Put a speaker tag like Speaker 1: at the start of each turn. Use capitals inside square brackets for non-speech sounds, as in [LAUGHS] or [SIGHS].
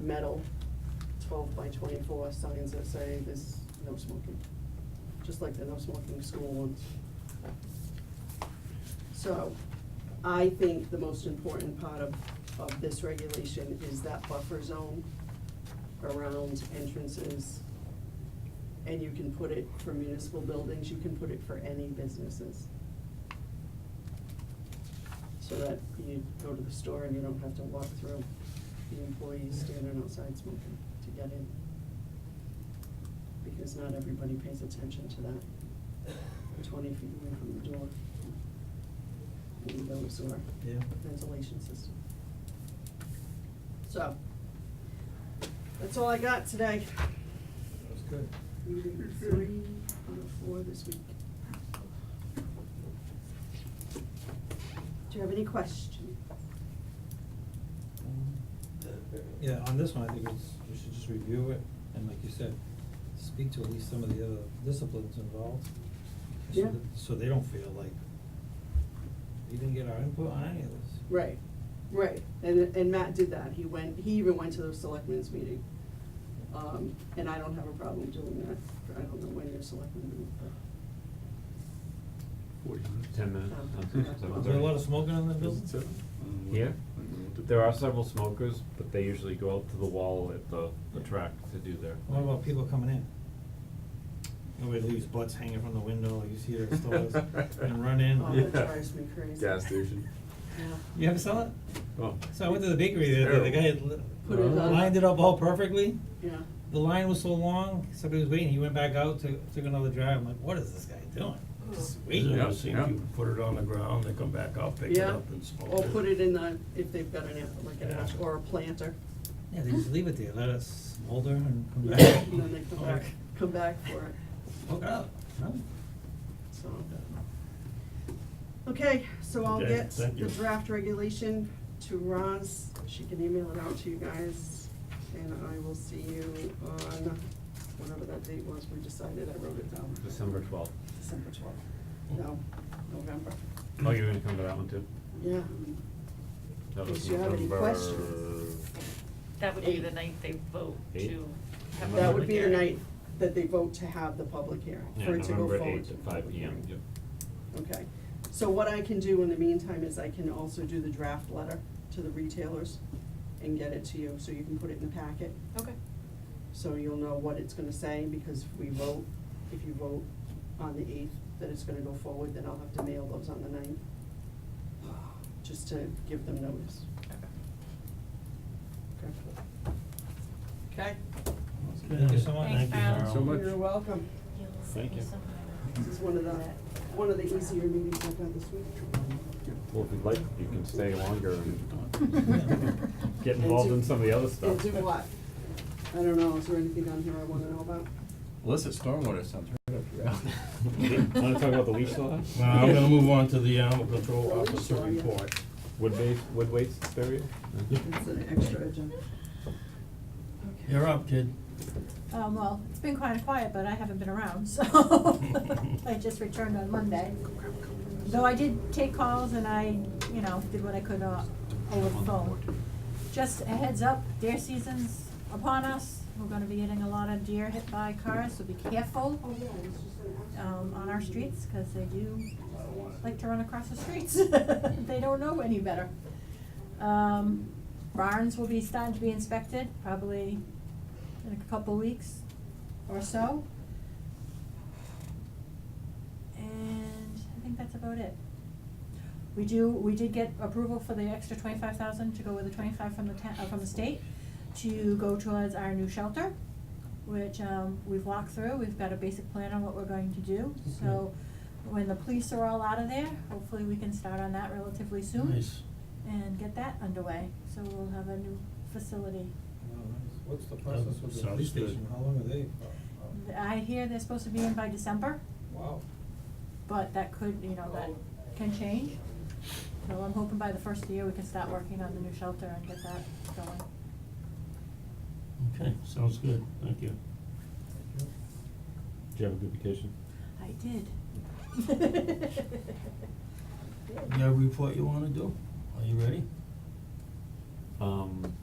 Speaker 1: metal, twelve by twenty-four signs that say this, no smoking, just like the no smoking school ones. So, I think the most important part of, of this regulation is that buffer zone around entrances. And you can put it for municipal buildings, you can put it for any businesses. So that you go to the store and you don't have to walk through the employees standing outside smoking to get in. Because not everybody pays attention to that, twenty feet away from the door. Windows or
Speaker 2: Yeah.
Speaker 1: ventilation system. So, that's all I got today.
Speaker 2: That was good.
Speaker 1: Meeting three out of four this week. Do you have any questions?
Speaker 2: Yeah, on this one, I think it's, we should just review it, and like you said, speak to at least some of the other disciplines involved. so
Speaker 1: Yeah.
Speaker 2: that- So they don't feel like, we didn't get our input on any of this.
Speaker 1: Right, right, and, and Matt did that, he went, he even went to the selectmen's meeting. Um, and I don't have a problem doing that, I don't know when your selectmen meet, but,
Speaker 3: Forty minutes. Ten minutes.
Speaker 1: Oh,
Speaker 3: Something,
Speaker 1: okay.
Speaker 3: something
Speaker 2: Is there a lot
Speaker 3: like
Speaker 2: of smoking in the
Speaker 3: that.
Speaker 2: building?
Speaker 4: Mm,
Speaker 3: Yeah, there are several smokers, but they usually go out to the wall at the, the track to do their.
Speaker 2: What about people coming in? Nobody leaves butts hanging from the window, you
Speaker 4: [LAUGHS]
Speaker 2: see their
Speaker 5: [LAUGHS]
Speaker 2: stores, and run in.
Speaker 1: oh, that
Speaker 3: Yeah.
Speaker 1: drives me crazy.
Speaker 4: Gas station.
Speaker 1: Yeah.
Speaker 2: You ever saw it?
Speaker 4: Oh.
Speaker 2: So I went to the bakery the other day, the guy had li-
Speaker 1: Put it on.
Speaker 2: lined it up all perfectly,
Speaker 1: Yeah,
Speaker 2: the line was so long, somebody was waiting, he went back out, took, took another drive, I'm like, what is this guy doing? Just
Speaker 1: Oh.
Speaker 2: waiting.
Speaker 5: Yeah,
Speaker 4: Yeah,
Speaker 5: I've seen
Speaker 4: yeah.
Speaker 5: people put it on the ground, they come back out, pick it
Speaker 1: Yeah.
Speaker 5: up and smoke it.
Speaker 1: or put it in the, if they've got an, app- like an,
Speaker 5: Yeah.
Speaker 1: app- or a planter,
Speaker 2: Yeah, they just leave it there, let it smolder and
Speaker 1: [LAUGHS]
Speaker 2: come
Speaker 1: and
Speaker 2: back.
Speaker 1: then they come back,
Speaker 2: Like,
Speaker 1: come back for it,
Speaker 2: Hook it up, no?
Speaker 1: so. Okay, so I'll
Speaker 5: Okay,
Speaker 1: get
Speaker 5: thank
Speaker 1: the
Speaker 5: you.
Speaker 1: draft regulation to Roz, she can email it out to you guys, and I will see you on, whatever that date was, we decided, I wrote it down.
Speaker 3: December twelfth.
Speaker 1: December twelfth, no, November,
Speaker 3: Oh, you're gonna come to that one too?
Speaker 1: yeah,
Speaker 3: That was
Speaker 1: Did you have any
Speaker 3: November-
Speaker 1: questions?
Speaker 6: That would be the
Speaker 1: Eight.
Speaker 6: night they vote
Speaker 3: Eight?
Speaker 6: to have a
Speaker 1: that would
Speaker 6: public
Speaker 1: be the
Speaker 6: hearing.
Speaker 1: night that they vote to have the public hearing,
Speaker 3: Yeah,
Speaker 1: for it to go forward.
Speaker 3: November eighth
Speaker 1: to
Speaker 3: at
Speaker 1: the
Speaker 3: five
Speaker 1: public
Speaker 3: P M,
Speaker 1: hearing.
Speaker 3: yep.
Speaker 1: Okay, so what I can do in the meantime is I can also do the draft letter to the retailers and get it to you, so you can put it in the packet,
Speaker 6: Okay,
Speaker 1: so you'll know what it's gonna say, because if we vote, if you vote on the eighth, that it's gonna go forward, then I'll have to mail those on the ninth, [SIGHS] just to give them notice. Okay. Okay?
Speaker 2: Thank you so much.
Speaker 6: Thanks, Thank you
Speaker 4: so much.
Speaker 1: You're welcome.
Speaker 3: Thank you.
Speaker 1: This is one of the, one of the easier meetings I've had this week.
Speaker 3: Well, if you'd like, you can stay
Speaker 1: [LAUGHS]
Speaker 3: longer
Speaker 7: [LAUGHS]
Speaker 3: and
Speaker 7: Um,
Speaker 6: Yeah.
Speaker 3: get involved
Speaker 1: And
Speaker 3: in
Speaker 1: do-
Speaker 3: some of the other stuff.
Speaker 1: And do
Speaker 3: [LAUGHS]
Speaker 1: what? I don't know, is there anything on here I wanna know about?
Speaker 4: Melissa, stormwater sounds right up your alley.
Speaker 3: Wanna talk about the leash law?
Speaker 5: Now, I'm gonna move on to the animal control
Speaker 1: Well, Oh, we
Speaker 5: officer
Speaker 1: saw ya.
Speaker 5: report.
Speaker 3: Wood base, wood waste area?
Speaker 1: It's an extra agenda. Okay.
Speaker 5: You're up, kid.
Speaker 7: Um, well, it's been kind of quiet, but I haven't been around, so [LAUGHS] I just returned on Monday. Though I did take calls and I, you know, did what I could uh, over the phone. Just a heads up, deer season's upon us. We're gonna be getting a lot of deer hit by cars, so be careful um, on our streets, cause they do like to run across the streets. [LAUGHS] They don't know any better. Um, barns will be starting to be inspected, probably in a couple weeks or so. And I think that's about it. We do, we did get approval for the extra twenty-five thousand to go with the twenty-five from the ta- uh, from the state to go towards our new shelter, which, um, we've walked through, we've got a basic plan on what we're going to do, so when the police are all out of there, hopefully we can start on that relatively soon
Speaker 5: Nice.
Speaker 7: and get that underway, so we'll have a new facility
Speaker 2: Uh, What's the
Speaker 5: process with the police station?
Speaker 2: How long are they?
Speaker 7: I hear they're supposed to be in by December,
Speaker 2: Wow.
Speaker 7: but that could, you know, that can change. So I'm hoping by the first of the year, we can start working on the new shelter and get that going.
Speaker 5: Okay, sounds good, thank you.
Speaker 3: Did you have a good vacation?
Speaker 7: I did.
Speaker 5: [LAUGHS]
Speaker 7: [LAUGHS]
Speaker 5: You got a report you wanna do? Are you ready?
Speaker 3: Um,